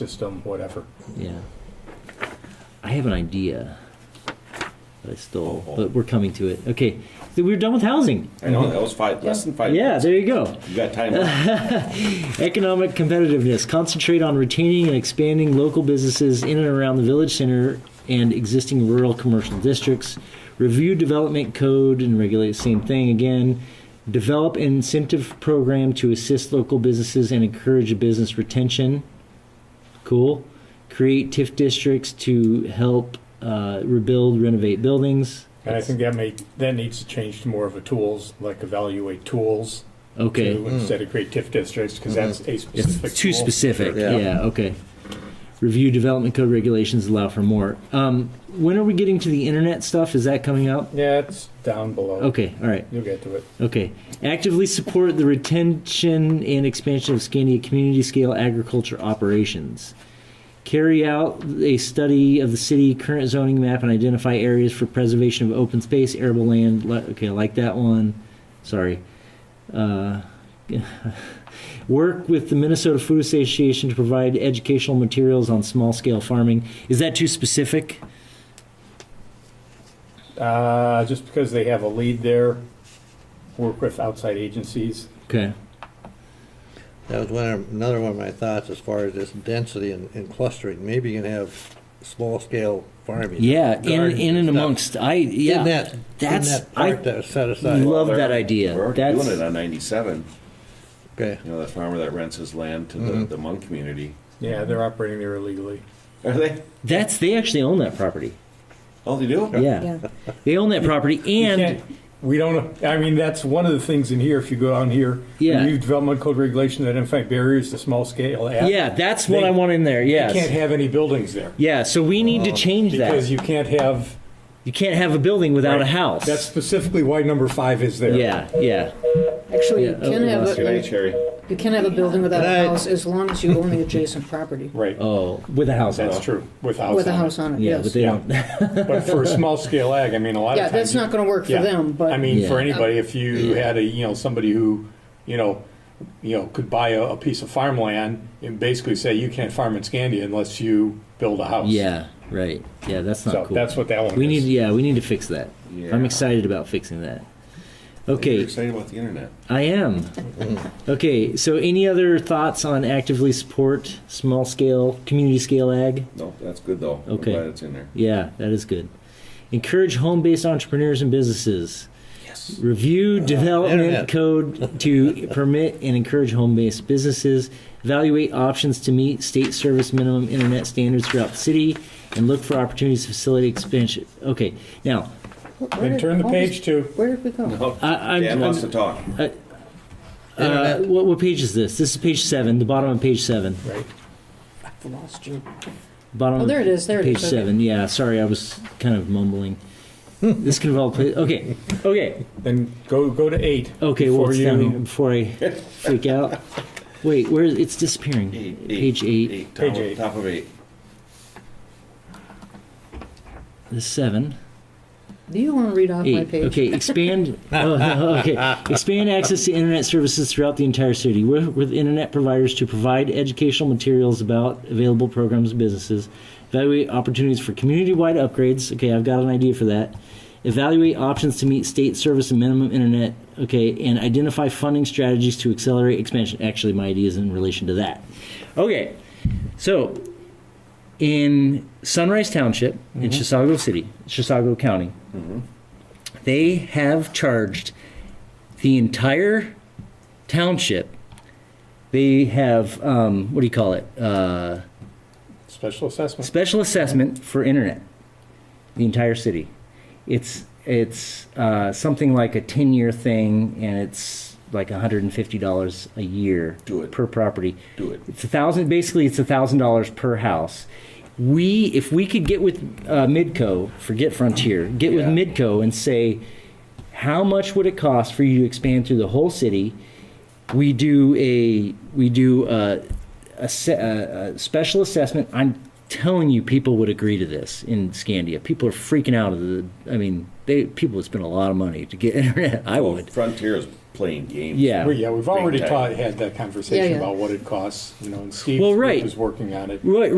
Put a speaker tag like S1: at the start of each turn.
S1: system, whatever.
S2: Yeah. I have an idea that I stole,
S3: Oh, oh.
S2: but we're coming to it. Okay, so we're done with housing.
S3: I know that was five, less than five.
S2: Yeah,
S3: minutes.
S2: there you go.
S3: You got time. left.
S2: Economic competitiveness. Concentrate on retaining and expanding local businesses in and around the village center and existing rural commercial districts. Review development code and regulate the same thing again. Develop an incentive program to assist local businesses and encourage business retention. Cool. Create TIF districts to help uh, rebuild, renovate buildings.
S1: And I think that may, that needs to change to more of a tools, like evaluate tools.
S2: Okay. Mm-hmm.
S1: to Instead of create TIF districts, because that's a
S2: It's
S1: specific
S2: too
S1: tool.
S2: specific. Yeah.
S3: Yeah.
S2: Okay. Review development code regulations allow for more. Um, when are we getting to the internet stuff? Is that coming up?
S1: Yeah, it's down below.
S2: Okay. All right.
S1: You'll get to it.
S2: Okay. Actively support the retention and expansion of Scandia community scale agriculture operations. Carry out a study of the city current zoning map and identify areas for preservation of open space, arable land. li- Okay, I like that one. Sorry. Uh, work with the Minnesota Food Association to provide educational materials on small scale farming. Is that too specific?
S1: Uh, just because they have a lead there, work with outside agencies.
S2: Okay.
S4: That was one of, another one of my thoughts as far as this density and, and clustering. Maybe you can have small scale farming.
S2: Yeah, in,
S4: gardens
S2: in and
S4: stuff.
S2: amongst. I yeah.
S4: In that, in
S2: that's
S4: that
S2: I
S4: part that was set aside.
S2: love
S3: They're-
S2: that idea.
S3: We're already
S2: That's-
S3: doing it on ninety-seven.
S2: Mm-hmm.
S4: Okay,
S3: You know, the farmer that rents his land to the, the Hmong community.
S1: Yeah, they're operating there illegally.
S3: Are they?
S2: That's they actually own that property.
S3: Oh, they do.
S2: Yeah, they own that property,
S1: You
S2: and
S1: can't- We don't, I mean, that's one of the things in here, if you go down here.
S2: Yeah.
S1: New development code regulation that identify barriers to small scale. ag.
S2: yeah, that's what
S1: They-
S2: I want in there.
S1: You can't
S2: Yes,
S1: have any buildings there.
S2: yeah. So we need to change
S1: Because
S2: that.
S1: you can't have.
S2: You can't have a building without a house.
S1: That's specifically why number five is there.
S2: yeah, yeah,
S5: Actually, you
S2: Yeah, oh,
S5: can
S2: we
S5: have
S2: lost
S3: Good night,
S5: a, uh,
S3: Sherry.
S5: you can have a building without
S4: Good night.
S5: a house as long as you own the adjacent property
S1: Right.
S2: Oh, with a house. on
S1: That's
S2: it.
S1: true. With house.
S5: with a
S1: on it.
S5: house on it,
S2: Yeah,
S5: yes.
S2: but they
S1: Yeah.
S2: don't.
S1: But for a small scale ag, I mean, a lot
S5: Yeah,
S1: of times.
S5: that's not gonna work for
S1: yeah.
S5: them, but-
S1: I mean, for
S2: Yeah.
S1: anybody, if you had a, you know, somebody who, you know, you know, could buy a, a piece of farmland and basically say, you can't farm in Scandia unless you build a house.
S2: Yeah, right. Yeah, that's not
S1: So
S2: cool.
S1: that's what that one
S2: we
S1: is.
S2: need. Yeah, we need to fix that.
S3: Yeah.
S2: I'm excited about fixing that.
S3: You're
S2: Okay,
S3: excited about the internet.
S2: I am. Okay, so any other thoughts on actively support small scale, community scale ag?
S3: No, that's good though. I'm
S2: Okay.
S3: glad it's in there.
S2: Yeah, that is good. Encourage home based entrepreneurs and businesses.
S3: Yes.
S2: Review development
S4: internet.
S2: code to permit and encourage home based businesses. Evaluate options to meet state service minimum internet standards throughout the city and look for opportunities to facilitate expansion. Okay, now,
S1: Then turn the page to,
S5: Where did we go?
S3: Oh,
S2: I- I'm-
S3: Dan wants to
S2: I'm-
S3: talk.
S2: uh,
S4: Internet.
S2: what, what page is this? This is page seven, the bottom of page seven.
S1: right,
S5: I've lost you.
S2: Bottom
S5: Oh, there it is, there it
S2: page
S5: is, okay.
S2: seven. Yeah, sorry, I was kind of mumbling. this can involve. pla- Okay, okay.
S1: then go, go to eight.
S2: Okay, well,
S1: before
S2: it's
S1: you-
S2: down here before I freak out. Wait, where it's disappearing.
S3: Eight, eight,
S2: Page eight,
S3: top
S1: Page
S3: of-
S1: eight.
S3: Top of eight.
S2: the seven,
S5: Do you wanna read off my
S2: eight.
S5: page?
S2: Okay, expand. oh, okay, expand access to internet services throughout the entire city with, with internet providers to provide educational materials about available programs and businesses. Evaluate opportunities for community-wide upgrades. Okay, I've got an idea for that. Evaluate options to meet state service and minimum internet. Okay, and identify funding strategies to accelerate expansion. Actually, my idea is in relation to that. Okay, so in Sunrise Township in
S5: Mm-hmm.
S2: Chisago City, Chisago County, they have charged the entire township. They have um, what do you call it? Uh,
S1: Special assessment.
S2: special assessment for internet. The entire city. It's it's uh, something like a ten year thing, and it's like one hundred and fifty dollars a year
S3: Do it.
S2: per property.
S3: Do it.
S2: It's a thousand. Basically, it's a thousand dollars per house. We, if we could get with uh, Midco, forget Frontier, get
S3: Yeah.
S2: with Midco and say, how much would it cost for you to expand through the whole city? We do a we do a, a, se- a, a special assessment. I'm telling you, people would agree to this in Scandia. People are freaking out of the. I mean, they people would spend a lot of money to get internet. I
S3: Well,
S2: would.
S3: Frontier is playing games.
S2: Yeah.
S1: Well, yeah, we've already
S3: Big
S1: ta-
S3: time.
S1: had that conversation
S5: yeah.
S1: about what it costs, you know, and Steve
S2: Well, right.
S1: was working on it.
S2: Right,